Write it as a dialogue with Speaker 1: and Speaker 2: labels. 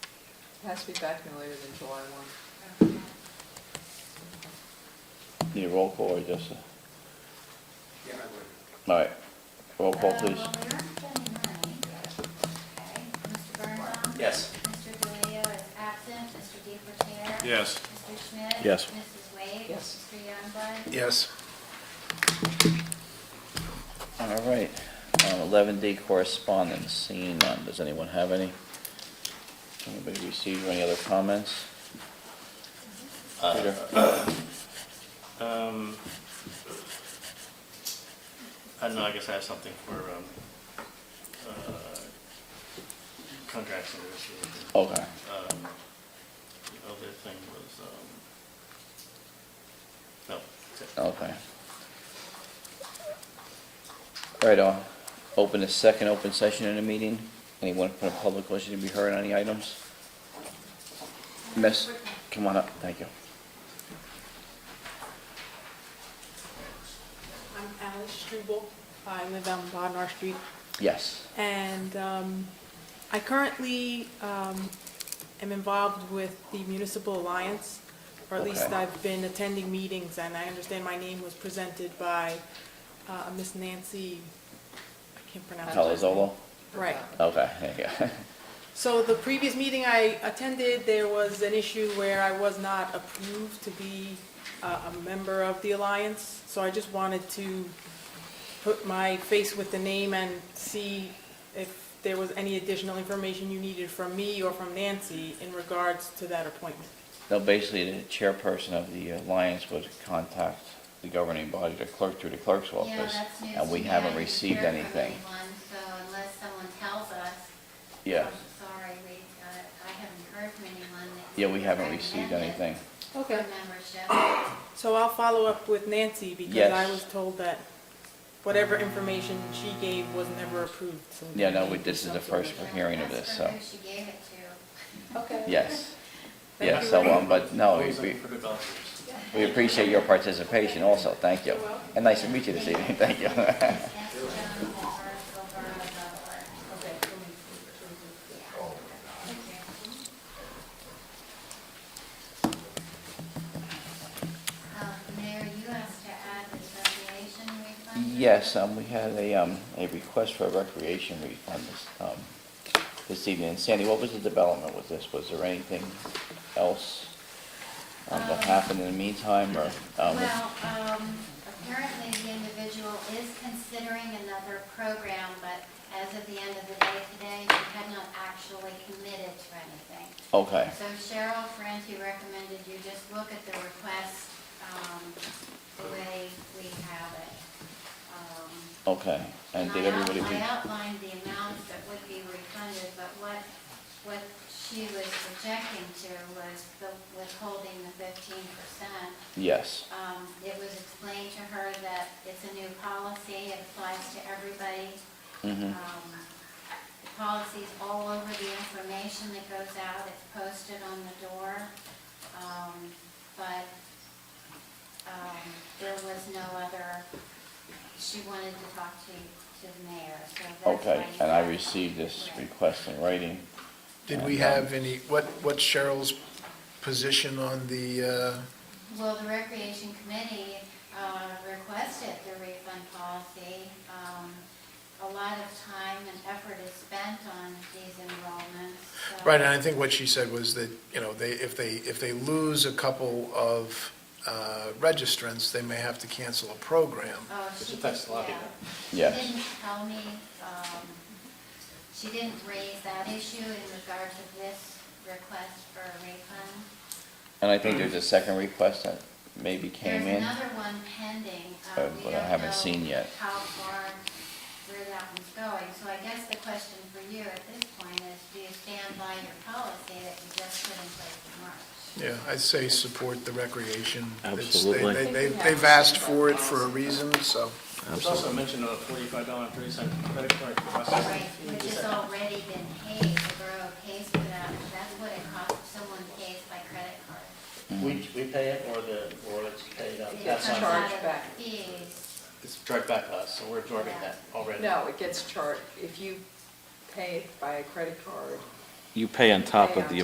Speaker 1: has to be back no later than July one.
Speaker 2: Need a roll call or just, a-
Speaker 3: Yeah, I would.
Speaker 2: all right, roll call please.
Speaker 4: Uh, well, we're not spending money yet, okay? Mr. Birnbaum?
Speaker 3: Yes.
Speaker 4: Mr. Delio is absent, Mr. DePerrier?
Speaker 5: Yes.
Speaker 4: Mr. Schmidt?
Speaker 2: Yes.
Speaker 4: Mrs. Wade?
Speaker 1: Yes.
Speaker 4: Mr. Youngblood?
Speaker 3: Yes.
Speaker 2: All right, um, eleven D correspondence, seeing none, does anyone have any? Anybody receive any other comments? Peter?
Speaker 6: Um, I don't know, I guess I have something for, um, uh, contracts and negotiations.
Speaker 2: Okay,
Speaker 6: Um, the other thing was, um, no, that's it.
Speaker 2: okay. All right, I'll open the second open session in the meeting. Anyone from the public wishing to be heard on any items? Miss, come on up, thank you.
Speaker 7: I'm Alice Struble. I live on Bodnar Street,
Speaker 2: Yes,
Speaker 7: and um, I currently um, am involved with the Municipal Alliance, or at least
Speaker 2: Okay.
Speaker 7: I've been attending meetings, and I understand my name was presented by uh, Miss Nancy, I can't pronounce her.
Speaker 2: Palazzolo?
Speaker 7: Right.
Speaker 2: Okay, there you go.
Speaker 7: So the previous meeting I attended, there was an issue where I was not approved to be uh, a member of the Alliance. So I just wanted to put my face with the name and see if there was any additional information you needed from me or from Nancy in regards to that appointment.
Speaker 2: No, basically, the chairperson of the alliance would contact the governing body, the clerk, through the clerk's
Speaker 4: Yeah,
Speaker 2: office.
Speaker 4: that's news
Speaker 2: And
Speaker 4: to
Speaker 2: we
Speaker 4: me. I
Speaker 2: haven't
Speaker 4: didn't
Speaker 2: received
Speaker 4: hear from
Speaker 2: anything.
Speaker 4: anyone, So unless someone tells us,
Speaker 2: Yeah,
Speaker 4: I'm sorry, we, uh, I haven't heard from anyone. that
Speaker 2: yeah, we haven't received
Speaker 4: recommended
Speaker 2: anything.
Speaker 4: for Membership.
Speaker 7: So I'll follow up with Nancy because
Speaker 2: Yes.
Speaker 7: I was told that whatever information she gave was never approved. So
Speaker 2: Yeah, no,
Speaker 7: we
Speaker 2: we-
Speaker 7: need
Speaker 2: this is the
Speaker 7: something
Speaker 2: first
Speaker 7: like
Speaker 2: we're
Speaker 7: that.
Speaker 2: hearing of
Speaker 4: Ask
Speaker 2: this,
Speaker 4: her
Speaker 2: so,
Speaker 4: who she gave it to.
Speaker 2: yes.
Speaker 7: Thank
Speaker 2: Yeah,
Speaker 7: you
Speaker 2: so,
Speaker 7: very
Speaker 2: um, but no, we,
Speaker 6: Always
Speaker 2: we,
Speaker 6: looking for good volunteers.
Speaker 2: we appreciate your participation also, thank you. And nice to meet you this evening, thank you.
Speaker 4: Ask Joan at virgilborough.org. Um, Mayor, you asked to add this recreation refund?
Speaker 2: Yes, um, we had a, um, a request for a recreation refund this, um, this evening. And Sandy, what was the development with this? Was there anything else, um, that
Speaker 4: Um,
Speaker 2: happened in the meantime, or, um,
Speaker 4: Well, um, apparently the individual is considering another program, but as of the end of the day today, she had not actually committed to anything.
Speaker 2: okay,
Speaker 4: So Cheryl Ferranti recommended you just look at the request, um, the way we have it. Um,
Speaker 2: okay. And did
Speaker 4: I out-
Speaker 2: everybody,
Speaker 4: I
Speaker 2: re-
Speaker 4: outlined the amounts that would be refunded, but what, what she was projecting to was the withholding the fifteen percent.
Speaker 2: yes,
Speaker 4: Um, it was explained to her that it's a new policy, it applies to everybody.
Speaker 2: Mhm.
Speaker 4: Um, The policy's all over the information that goes out, it's posted on the door. Um, but, um, there was no other, she wanted to talk to, to the mayor, so that's why.
Speaker 2: okay.
Speaker 4: you
Speaker 2: And I
Speaker 4: got-
Speaker 2: received this
Speaker 4: Right.
Speaker 2: request in writing. um,
Speaker 8: Did we have any, what, what's Cheryl's position on the, uh,
Speaker 4: Well, the Recreation Committee uh, requested the refund policy. Um, A lot of time and effort is spent on these enrollments.
Speaker 8: uh,
Speaker 4: so-
Speaker 8: right, and I think what she said was that, you know, they, if they, if they lose a couple of uh, registrants, they may have to cancel a program.
Speaker 4: Oh,
Speaker 3: It's
Speaker 4: she,
Speaker 3: a text
Speaker 4: yeah.
Speaker 3: lobby,
Speaker 2: Yes.
Speaker 4: She didn't tell me, um, she didn't raise that issue in regard to this request for a refund.
Speaker 2: And I think there's a second request that maybe came
Speaker 4: There's
Speaker 2: in.
Speaker 4: another one pending.
Speaker 2: Uh,
Speaker 4: um, we
Speaker 2: but I
Speaker 4: don't
Speaker 2: haven't
Speaker 4: know
Speaker 2: seen yet.
Speaker 4: How far, where that one's going. So I guess the question for you at this point is, do you stand by your policy that you just put in place in March?
Speaker 8: Yeah, I'd say support the recreation. It's- they-
Speaker 5: Absolutely.
Speaker 8: they- they- They've asked for it for a reason, so.
Speaker 6: There's also mention of a forty-five dollar and thirty cent credit card for buses.
Speaker 4: Right, which has already been paid, the borough pays for that, that's what it costs if someone pays by credit card.
Speaker 6: We, we pay it or the, or it's paid out.
Speaker 4: It
Speaker 1: That's
Speaker 6: That's
Speaker 4: comes
Speaker 6: on,
Speaker 1: charged
Speaker 4: out of
Speaker 1: back.
Speaker 4: Fees,
Speaker 6: it's charged back to us, so we're absorbing that already.
Speaker 1: No, it gets charged, if you pay it by a credit card,
Speaker 5: You pay on top of the